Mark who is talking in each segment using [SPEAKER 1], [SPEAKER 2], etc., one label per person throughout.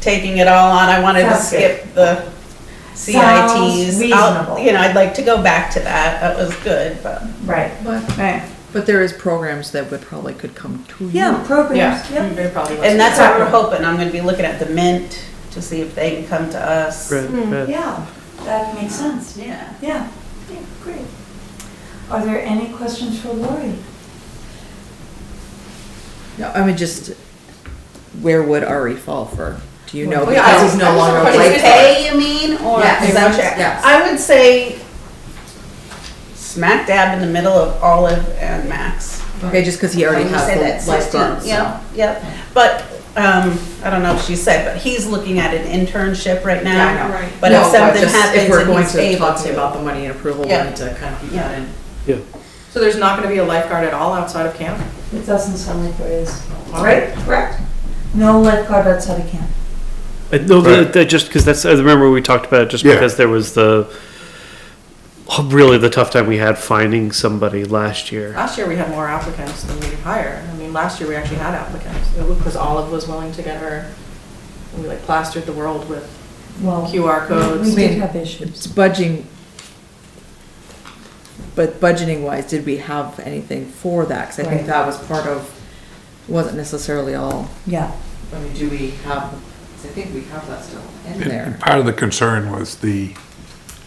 [SPEAKER 1] taking it all on. I wanted to
[SPEAKER 2] Sounds good.
[SPEAKER 1] skip the CITs. I'll-
[SPEAKER 2] reasonable.
[SPEAKER 1] You know, I'd like to go back to that. That was good, but.
[SPEAKER 2] Right.
[SPEAKER 3] But,
[SPEAKER 4] Right.
[SPEAKER 3] but there is programs that would probably could come to you.
[SPEAKER 4] Yeah,
[SPEAKER 1] Yeah.
[SPEAKER 4] programs, yep.
[SPEAKER 2] They probably
[SPEAKER 1] And that's what we're hoping. I'm gonna be looking at the Mint to see if they can come to us.
[SPEAKER 5] Right, right.
[SPEAKER 2] Yeah, that makes sense.
[SPEAKER 1] Yeah.
[SPEAKER 2] Yeah, yeah, great. Are there any questions for Lori?
[SPEAKER 3] No, I mean, just, where would Ari fall for? Do you know?
[SPEAKER 6] Well, yeah, I
[SPEAKER 3] Because
[SPEAKER 6] was-
[SPEAKER 3] he's
[SPEAKER 6] I
[SPEAKER 3] no
[SPEAKER 6] was
[SPEAKER 3] longer
[SPEAKER 6] gonna put
[SPEAKER 3] like
[SPEAKER 6] his-
[SPEAKER 1] Pay, you mean, or?
[SPEAKER 6] Yeah,
[SPEAKER 1] is that what you're-
[SPEAKER 6] yes.
[SPEAKER 1] I would say smack dab in the middle of Olive and Max.
[SPEAKER 3] Okay, just because he already
[SPEAKER 1] When you say
[SPEAKER 3] has
[SPEAKER 1] that,
[SPEAKER 3] the
[SPEAKER 1] 16,
[SPEAKER 3] lifeguard, so.
[SPEAKER 1] Yep, yep. But, um, I don't know if she said, but he's looking at an internship right now.
[SPEAKER 3] Yeah, I know.
[SPEAKER 6] Right.
[SPEAKER 1] But if
[SPEAKER 3] No,
[SPEAKER 1] something
[SPEAKER 3] just
[SPEAKER 1] happens
[SPEAKER 3] If we're
[SPEAKER 1] and
[SPEAKER 3] going
[SPEAKER 1] he's
[SPEAKER 3] to
[SPEAKER 1] able
[SPEAKER 3] talk about
[SPEAKER 1] to.
[SPEAKER 3] the money and approval, we
[SPEAKER 1] Yeah.
[SPEAKER 3] need to kind of keep
[SPEAKER 1] Yeah.
[SPEAKER 3] that in.
[SPEAKER 5] Yeah.
[SPEAKER 6] So there's not gonna be a lifeguard at all outside of camp?
[SPEAKER 2] It doesn't sound like there is.
[SPEAKER 6] Okay.
[SPEAKER 2] Right? Correct. No lifeguard outside of camp.
[SPEAKER 5] I- Uh, No,
[SPEAKER 7] Right.
[SPEAKER 5] that, that just because that's, I remember we talked about it just
[SPEAKER 7] Yeah.
[SPEAKER 5] because there was the, really the tough time we had finding somebody last year.
[SPEAKER 6] Last year, we had more applicants than we could hire. I mean, last year, we actually had applicants, because Olive was willing to get her, we like plastered the world with
[SPEAKER 2] Well,
[SPEAKER 6] QR
[SPEAKER 2] we
[SPEAKER 6] codes.
[SPEAKER 2] did have issues.
[SPEAKER 3] It's budging, but budgeting wise, did we have anything for that? Because I
[SPEAKER 2] Right.
[SPEAKER 3] think that was part of, wasn't necessarily all,
[SPEAKER 2] Yeah.
[SPEAKER 3] I mean, do we have, 'cause I think we have that still in
[SPEAKER 7] And-
[SPEAKER 3] there.
[SPEAKER 7] and Part of the concern was the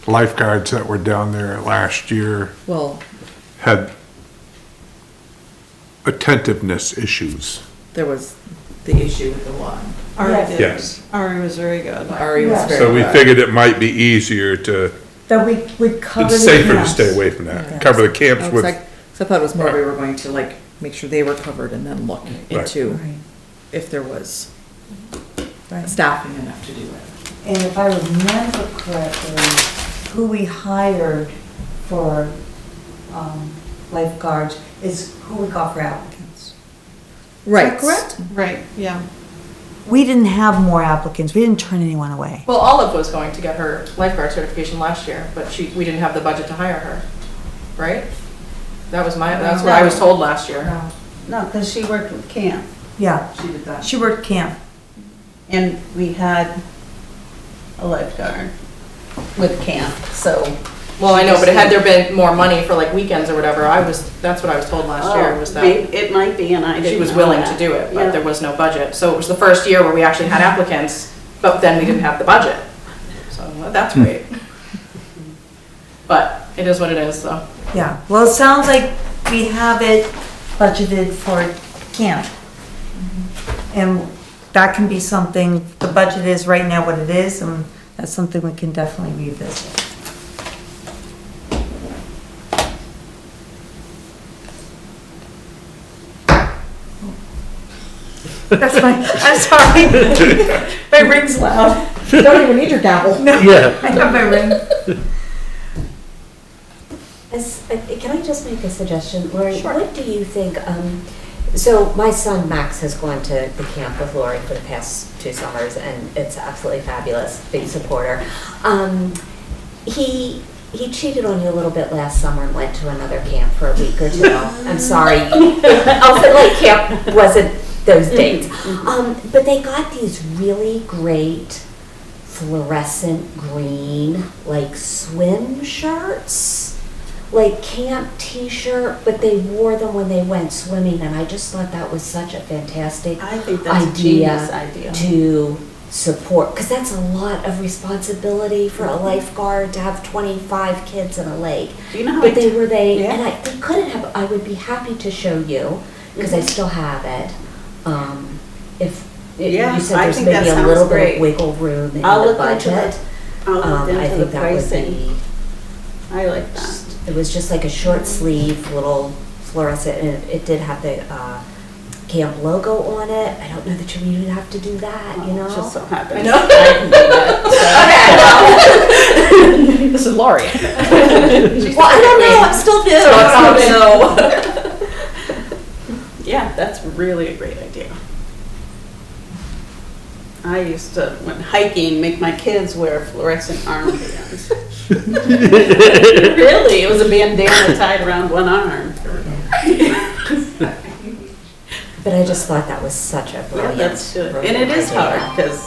[SPEAKER 7] lifeguards that were down there last year
[SPEAKER 3] Well,
[SPEAKER 7] had attentiveness issues.
[SPEAKER 3] there was the issue with the one.
[SPEAKER 2] Yes.
[SPEAKER 6] Ari did,
[SPEAKER 4] Ari was very good.
[SPEAKER 3] Ari was
[SPEAKER 2] Yeah.
[SPEAKER 3] very.
[SPEAKER 7] So we
[SPEAKER 3] good.
[SPEAKER 7] figured it might be easier to,
[SPEAKER 2] That we would cover the
[SPEAKER 7] it's safer to
[SPEAKER 2] camps.
[SPEAKER 7] stay away from that,
[SPEAKER 3] Yeah.
[SPEAKER 7] cover the camps
[SPEAKER 3] I was
[SPEAKER 7] with,
[SPEAKER 3] like, so I thought it was more we were going to like make sure they were covered and then look into
[SPEAKER 2] Right,
[SPEAKER 3] if there was
[SPEAKER 2] right.
[SPEAKER 3] staffing enough to do it.
[SPEAKER 2] And if I remember correctly, who we hired for um, lifeguards is who we got for applicants.
[SPEAKER 3] Right.
[SPEAKER 2] correct?
[SPEAKER 4] Right, yeah.
[SPEAKER 2] We didn't have more applicants. We didn't turn anyone away.
[SPEAKER 6] well, Olive was going to get her lifeguard certification last year, but she, we didn't have the budget to hire her, right? That was my, that's what I was told last year.
[SPEAKER 2] No.
[SPEAKER 1] No, because she worked with camp.
[SPEAKER 2] Yeah,
[SPEAKER 1] She did that.
[SPEAKER 2] she worked camp.
[SPEAKER 1] And we had a lifeguard with camp, so.
[SPEAKER 6] Well, I know, but had there been more money for like weekends or whatever, I was, that's what I was told last year, was that.
[SPEAKER 1] Maybe- "Oh, It might be, and I didn't
[SPEAKER 6] she was
[SPEAKER 1] know
[SPEAKER 6] willing to
[SPEAKER 1] that.
[SPEAKER 6] do it,
[SPEAKER 1] Yeah.
[SPEAKER 6] but there was no budget. So it was the first year where we actually had applicants, but then we didn't have the budget. So well, that's great. But it is what it is, so.
[SPEAKER 2] Yeah, well, it sounds like we have it budgeted for camp. And that can be something, the budget is right now what it is, and that's something we can definitely revisit. That's my, I'm sorry. My ring's loud.
[SPEAKER 3] Don't even need your gavel.
[SPEAKER 5] Yeah.
[SPEAKER 2] I have my ring.
[SPEAKER 8] As- uh, Can I just make a suggestion, Lori? What do you think, um, so my son Max has gone to the camp with Lori for the past two summers, and it's absolutely fabulous, big supporter. Um, He, he cheated on you a little bit last summer and went to another camp for a week or two. I'm sorry, Elfin Lake oh, Camp wasn't those
[SPEAKER 1] Mm-hmm,
[SPEAKER 8] dates. Um, But they got these really great fluorescent green, like swim shirts, like camp t shirt, but they wore them when they went swimming. And I just thought that was such a fantastic
[SPEAKER 1] I think that's a genius idea.
[SPEAKER 8] to support, because that's a lot of responsibility for
[SPEAKER 1] Mm-hmm.
[SPEAKER 8] a lifeguard to have 25 kids in a lake.
[SPEAKER 1] Do you know how I
[SPEAKER 8] But Oh, they were they,
[SPEAKER 1] Yeah.
[SPEAKER 8] and I, they couldn't have, I would be happy to show you, because
[SPEAKER 1] Mm-hmm.
[SPEAKER 8] I still have it. Um, if, if
[SPEAKER 1] Yeah,
[SPEAKER 8] you said
[SPEAKER 1] I
[SPEAKER 8] there's
[SPEAKER 1] think that
[SPEAKER 8] maybe a
[SPEAKER 1] sounds
[SPEAKER 8] little bit
[SPEAKER 1] great.
[SPEAKER 8] of wiggle room in
[SPEAKER 1] I'll
[SPEAKER 8] the
[SPEAKER 1] look into
[SPEAKER 8] budget.
[SPEAKER 1] it. I'll look
[SPEAKER 8] um, I
[SPEAKER 1] into
[SPEAKER 8] think
[SPEAKER 1] the
[SPEAKER 8] that would
[SPEAKER 1] pricing.
[SPEAKER 8] be,
[SPEAKER 1] I like that.
[SPEAKER 8] just- it was just like a short sleeve, little fluorescent, and it- it did have the, uh, camp logo on it. I don't know that you even have to do that, you know?
[SPEAKER 1] It Oh, just so happens.
[SPEAKER 3] This is Laurie.
[SPEAKER 8] Well, I don't know, I'm still new.
[SPEAKER 1] Yeah, that's really a great idea. I used to, when hiking, make my kids wear fluorescent armbands. Really, it was a bandana tied around one arm.
[SPEAKER 8] But I just thought that was such a
[SPEAKER 1] Yeah,
[SPEAKER 8] brilliant.
[SPEAKER 1] that's good. And it
[SPEAKER 8] brilliant
[SPEAKER 1] is
[SPEAKER 8] idea.
[SPEAKER 1] hard, because